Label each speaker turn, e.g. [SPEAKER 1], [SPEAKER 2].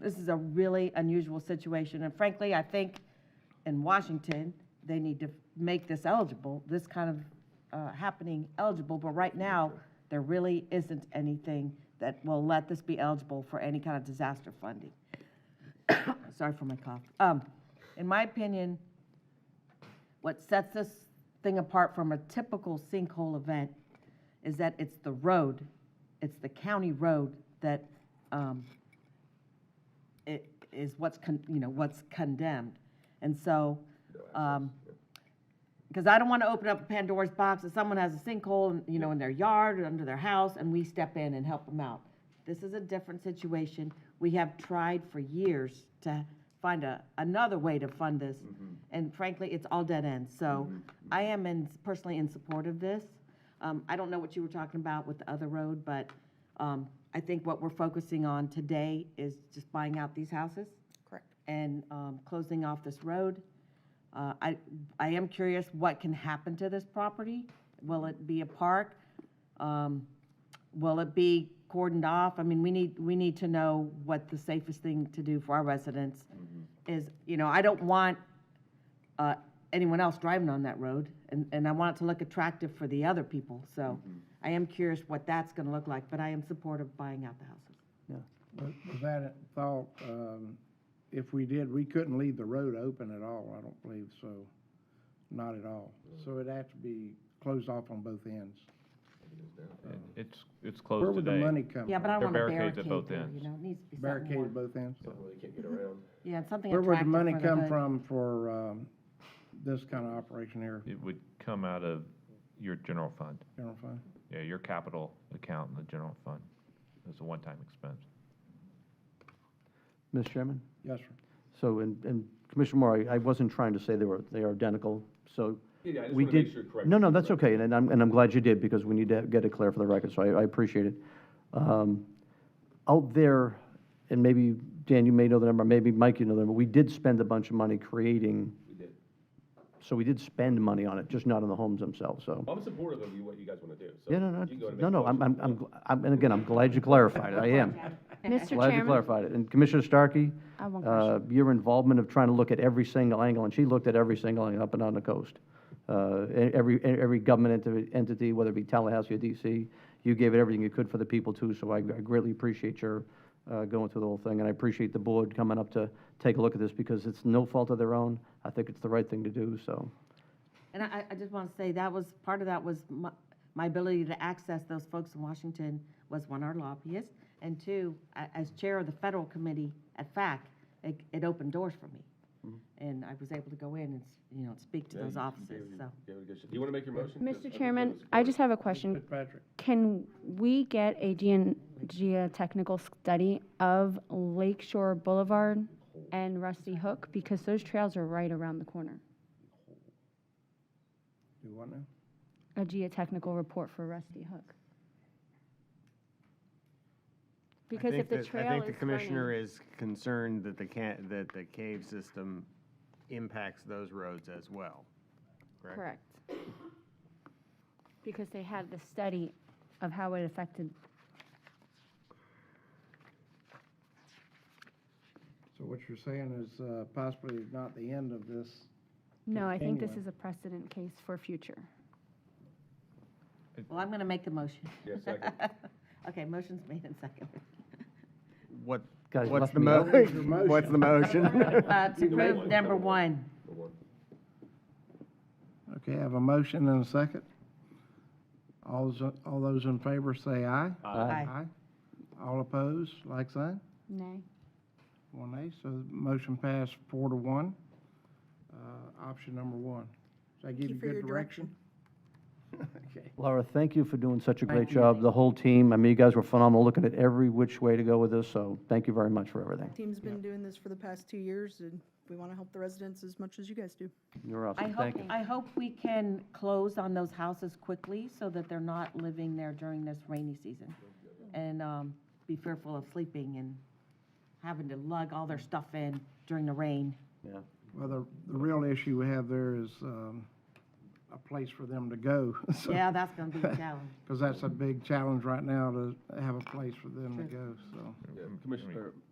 [SPEAKER 1] This is a really unusual situation, and frankly, I think in Washington, they need to make this eligible, this kind of uh, happening eligible, but right now, there really isn't anything that will let this be eligible for any kind of disaster funding. Sorry for my cough. Um, In my opinion, what sets this thing apart from a typical sinkhole event is that it's the road, it's the county road that um, i- is what's, con- you know, what's condemned. And so, because I don't want to open up Pandora's box if someone has a sinkhole, in- you know, in their yard or under their house, and we step in and help them out. This is a different situation. We have tried for years to find a, another way to fund this, and frankly, it's all dead ends. So I am in, personally in support of this. Um, I don't know what you were talking about with the other road, but, um, I think what we're focusing on today is just buying out these houses.
[SPEAKER 2] Correct.
[SPEAKER 1] And, um, closing off this road. Uh, I, I am curious what can happen to this property. Will it be a park? Um, Will it be cordoned off? I mean, we need, we need to know what the safest thing to do for our residents
[SPEAKER 3] Mm-hmm.
[SPEAKER 1] is, you know, I don't want uh, anyone else driving on that road, and, and I want it to look attractive for the other people, so
[SPEAKER 3] Mm-hmm.
[SPEAKER 1] I am curious what that's gonna look like, but I am supportive of buying out the houses.
[SPEAKER 4] But with that thought, um, if we did, we couldn't leave the road open at all, I don't believe, so, not at all. So it'd have to be closed off on both ends.
[SPEAKER 3] It- It's, it's
[SPEAKER 4] Um, Where
[SPEAKER 3] closed
[SPEAKER 4] would the
[SPEAKER 3] today.
[SPEAKER 4] money come from?
[SPEAKER 1] Yeah, but I don't
[SPEAKER 3] They're
[SPEAKER 1] want to
[SPEAKER 3] barricades
[SPEAKER 1] barricade
[SPEAKER 3] at both
[SPEAKER 1] there, you
[SPEAKER 3] ends.
[SPEAKER 1] know, it needs to be something
[SPEAKER 4] Barricaded
[SPEAKER 1] more.
[SPEAKER 4] both ends?
[SPEAKER 5] Well, you can't get around.
[SPEAKER 1] Yeah, something
[SPEAKER 4] Where
[SPEAKER 1] attractive
[SPEAKER 4] would the money
[SPEAKER 1] for the
[SPEAKER 4] come
[SPEAKER 1] hood.
[SPEAKER 4] from for, um, this kind of operation here,
[SPEAKER 3] It would come out of your general fund.
[SPEAKER 4] general fund?
[SPEAKER 3] Yeah, your capital account in the general fund. It's a one-time expense.
[SPEAKER 6] Mr. Chairman?
[SPEAKER 4] Yes, sir.
[SPEAKER 6] So, and and Commissioner Moore, I- I wasn't trying to say they were, they are identical, so.
[SPEAKER 5] Yeah, I just
[SPEAKER 6] we
[SPEAKER 5] wanna make
[SPEAKER 6] did-
[SPEAKER 5] sure correct-
[SPEAKER 6] No, no, that's okay, and- and I'm, and I'm glad you did, because we need to get it clear for the record, so I, I appreciate it. Um, Out there, and maybe, Dan, you may know the number, maybe Mike, you know the number, we did spend a bunch of money creating,
[SPEAKER 5] We did.
[SPEAKER 6] so we did spend money on it, just not on the homes themselves, so.
[SPEAKER 5] Well, I'm supportive of you, what you guys want to do. So
[SPEAKER 6] Yeah, no, no,
[SPEAKER 5] you can go ahead and
[SPEAKER 6] no,
[SPEAKER 5] make a
[SPEAKER 6] no, I'm,
[SPEAKER 5] motion.
[SPEAKER 6] I'm, I'm gl- I'm, and again, I'm glad you clarified it, I am.
[SPEAKER 2] Mr.
[SPEAKER 6] Glad you
[SPEAKER 2] Chairman,
[SPEAKER 6] clarified it. And Commissioner Starkey?
[SPEAKER 2] I have one
[SPEAKER 6] uh, Your involvement of trying to look at every single angle, and she looked at every single angle up and down the coast. Uh, e- Every, e- every government enti- entity, whether it be Tallahassee or DC, you gave it everything you could for the people too, so I I greatly appreciate your uh, going through the whole thing, and I appreciate the board coming up to take a look at this, because it's no fault of their own. I think it's the right thing to do, so.
[SPEAKER 1] And I, I just want to say, that was, part of that was my, my ability to access those folks in Washington was one, our lobbyists, and two, a- as chair of the federal committee at FAC, it, it opened doors for me. And I was able to go in and, s- you know, speak to
[SPEAKER 5] Mm-hmm. Yeah,
[SPEAKER 1] those
[SPEAKER 5] you-
[SPEAKER 1] offices,
[SPEAKER 5] you gave it-
[SPEAKER 1] so.
[SPEAKER 5] gave it a good shot. Do you want to make your motion? 'Cause I
[SPEAKER 2] Mr.
[SPEAKER 5] think
[SPEAKER 2] Chairman,
[SPEAKER 5] that was
[SPEAKER 2] I
[SPEAKER 5] good.
[SPEAKER 2] just have a
[SPEAKER 1] Mm.
[SPEAKER 2] question.
[SPEAKER 4] Fitzpatrick,
[SPEAKER 2] Can we get a gean- geotechnical study of Lakeshore Boulevard and Rusty Hook? Because those trails are right around the corner.
[SPEAKER 4] do what now?
[SPEAKER 2] A geotechnical report for Rusty Hook.
[SPEAKER 7] I
[SPEAKER 2] Because
[SPEAKER 7] think
[SPEAKER 2] if the
[SPEAKER 7] that-
[SPEAKER 2] trail
[SPEAKER 7] I
[SPEAKER 2] is
[SPEAKER 7] think the commissioner
[SPEAKER 2] running-
[SPEAKER 7] is concerned that the can, that the cave system impacts those roads as well. correct?
[SPEAKER 2] Correct. Because they had the study of how it affected
[SPEAKER 4] So what you're saying is, uh, possibly not the end of this,
[SPEAKER 2] No, I think this
[SPEAKER 4] Anyway.
[SPEAKER 2] is a precedent case for future.
[SPEAKER 1] Well, I'm going to make the motion.
[SPEAKER 5] Yeah, second.
[SPEAKER 1] Okay, motion's made and seconded.
[SPEAKER 7] What,
[SPEAKER 6] Guys,
[SPEAKER 7] what's
[SPEAKER 6] left
[SPEAKER 7] the
[SPEAKER 6] me
[SPEAKER 7] mo,
[SPEAKER 6] out.
[SPEAKER 4] What was your
[SPEAKER 7] what's the motion?
[SPEAKER 1] Uh, to
[SPEAKER 5] Either way,
[SPEAKER 1] approve number
[SPEAKER 5] one, number one.
[SPEAKER 1] one.
[SPEAKER 5] The one.
[SPEAKER 4] Okay, I have a motion and a second. All those, all those in favor say aye.
[SPEAKER 7] uh,
[SPEAKER 1] Aye.
[SPEAKER 4] All opposed, like sign,
[SPEAKER 2] Nay.
[SPEAKER 4] one nay, so the motion passed four to one. Uh, Option number one. Does that give you good direction? Okay.
[SPEAKER 6] Laura, thank you for doing such a great
[SPEAKER 1] you.
[SPEAKER 6] job, the whole team. I mean, you guys were phenomenal, looking at every which way to go with this, so thank you very much for everything.
[SPEAKER 8] Team's been doing this for the past two years, and we want to help the residents as much as you guys do.
[SPEAKER 6] You're
[SPEAKER 1] I
[SPEAKER 6] awesome,
[SPEAKER 1] hope,
[SPEAKER 6] thank you.
[SPEAKER 1] I hope we can close on those houses quickly so that they're not living there during this rainy season. And um, be fearful of sleeping and having to lug all their stuff in during the rain.
[SPEAKER 6] Yeah.
[SPEAKER 4] Well, the, the real issue we have there is um, a place for them to go.
[SPEAKER 1] Yeah, that's gonna be a challenge.
[SPEAKER 4] Because that's a big challenge right now to have a place for them to go, so.
[SPEAKER 5] Yeah, Commissioner,